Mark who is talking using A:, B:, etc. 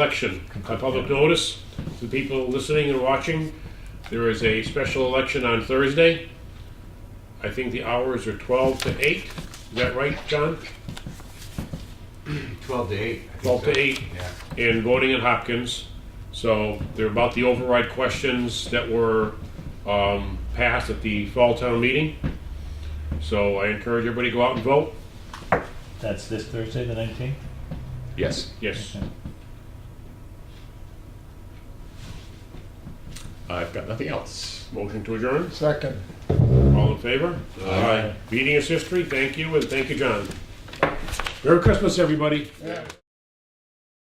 A: election, a public notice to people listening and watching. There is a special election on Thursday. I think the hours are 12 to 8. Is that right, John?
B: 12 to 8. I think
A: 12 to
B: so.
A: 8.
B: Yeah.
A: And voting in Hopkins. So they're about the override questions that were um, passed at the fall town meeting. So I encourage everybody to go out and vote.
C: That's this Thursday, the 19th?
D: Yes.
A: Yes.
D: I've got nothing else.
A: Motion to adjourn.
E: Second.
A: All in favor? Aye. Meeting is history. Thank you, and thank you, John. Merry Christmas, everybody.